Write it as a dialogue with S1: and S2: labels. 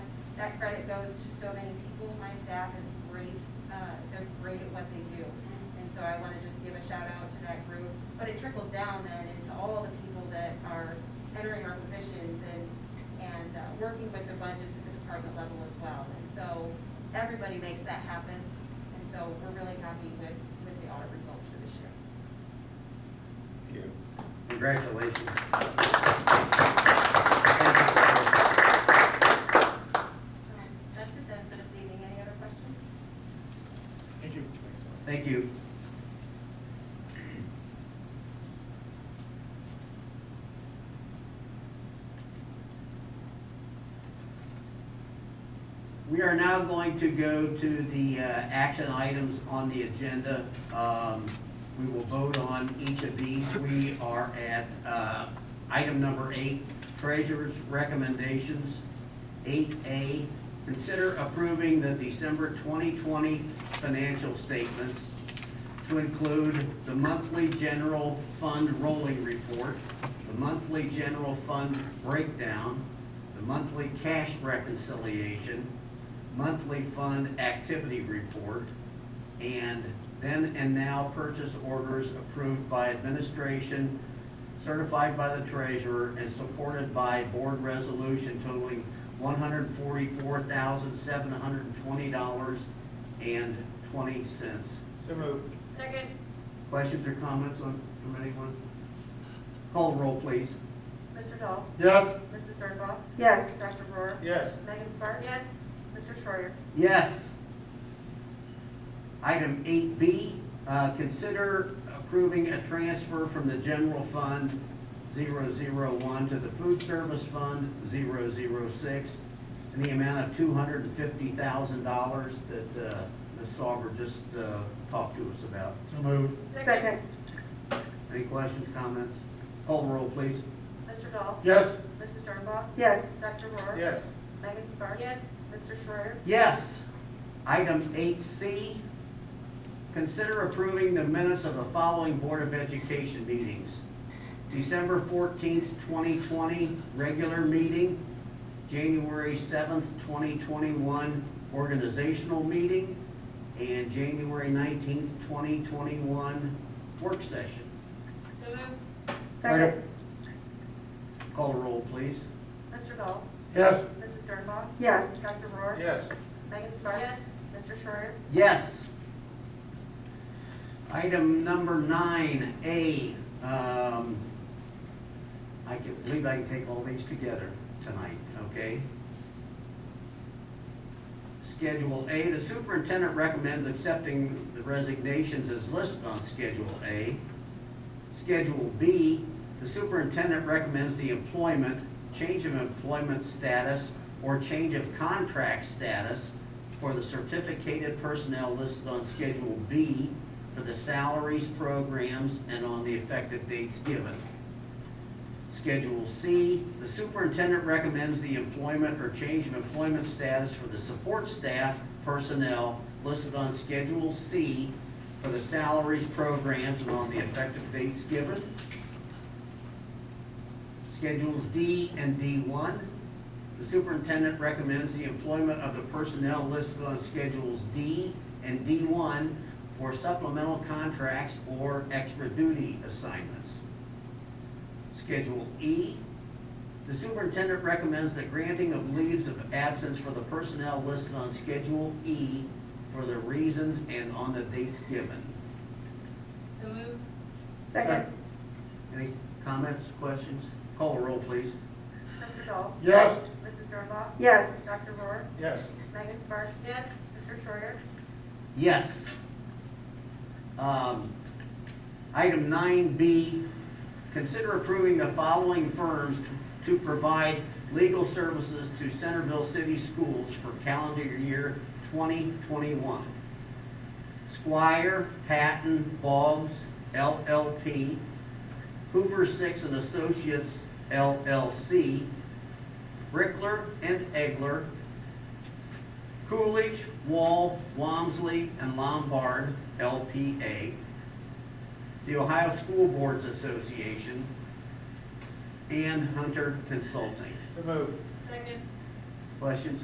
S1: That credit goes to so many people. My staff is great, uh, they're great at what they do. And so I want to just give a shout out to that group. But it trickles down then into all the people that are entering our positions and, and uh, working with the budgets at the department level as well. And so everybody makes that happen. And so we're really happy with, with the audit results for this year.
S2: Thank you. Congratulations.
S1: So Um, That's it then for this evening. Any other questions?
S3: Thank you.
S2: Thank you. We are now going to go to the uh, action items on the agenda. Um, We will vote on each of these. We are at uh, item number eight, treasurer's recommendations. Eight A, consider approving the December 2020 financial statements to include the monthly general fund rolling report, the monthly general fund breakdown, the monthly cash reconciliation, monthly fund activity report, and then and now purchase orders approved by administration, certified by the treasurer, and supported by board resolution totaling one hundred forty-four thousand, seven hundred and twenty dollars and twenty cents.
S3: So moved.
S1: Second.
S2: Questions or comments on, from anyone? Call roll, please.
S4: Mr. Dahl?
S3: Yes.
S4: Mrs. Dernbaugh?
S5: Yes.
S4: Dr. Rohr?
S3: Yes.
S4: Megan Sparks?
S1: Yes.
S4: Mr. Schreier?
S2: Yes. Item eight B, uh, consider approving a transfer from the general fund 001 to the food service fund 006 in the amount of two hundred and fifty thousand dollars that, uh, Ms. Sauber just, uh, talked to us about.
S3: So moved.
S5: Second.
S2: Any questions, comments? Call roll, please.
S4: Mr. Dahl?
S3: Yes.
S4: Mrs. Dernbaugh?
S5: Yes.
S4: Dr. Rohr?
S3: Yes.
S4: Megan Sparks?
S1: Yes.
S4: Mr. Schreier?
S2: Yes. Item eight C, consider approving the minutes of the following Board of Education meetings. December fourteenth, twenty twenty, regular meeting. January seventh, twenty twenty-one, organizational meeting. And January nineteenth, twenty twenty-one, work session.
S1: So moved.
S5: Second.
S2: Call roll, please.
S4: Mr. Dahl?
S3: Yes.
S4: Mrs. Dernbaugh?
S5: Yes.
S4: Dr. Rohr?
S3: Yes.
S4: Megan Sparks?
S1: Yes.
S4: Mr. Schreier?
S2: Yes. Item number nine, A, um, I can, believe I can take all these together tonight, okay? Schedule A, the superintendent recommends accepting the resignations as listed on Schedule A. Schedule B, the superintendent recommends the employment, change of employment status, or change of contract status for the certificated personnel listed on Schedule B for the salaries, programs, and on the effective dates given. Schedule C, the superintendent recommends the employment or change of employment status for the support staff personnel listed on Schedule C for the salaries, programs, and on the effective dates given. Schedules D and D one, the superintendent recommends the employment of the personnel listed on Schedules D and D one for supplemental contracts or extra duty assignments. Schedule E, the superintendent recommends the granting of leaves of absence for the personnel listed on Schedule E for the reasons and on the dates given.
S1: So moved.
S5: Second.
S2: Any comments, questions? Call roll, please.
S4: Mr. Dahl?
S3: Yes.
S4: Mrs. Dernbaugh?
S5: Yes.
S4: Dr. Rohr?
S3: Yes.
S4: Megan Sparks?
S1: Yes.
S4: Mr. Schreier?
S2: Yes. Um, Item nine B, consider approving the following firms to provide legal services to Centerville City Schools for calendar year twenty twenty-one. Squire, Patton, Boggs, LLP, Hoover Six and Associates LLC, Brickler and Egler, Coolidge, Wall, Walmsley, and Lombard, LPA, the Ohio School Boards Association, and Hunter Consulting.
S3: So moved.
S1: Second.
S2: Questions,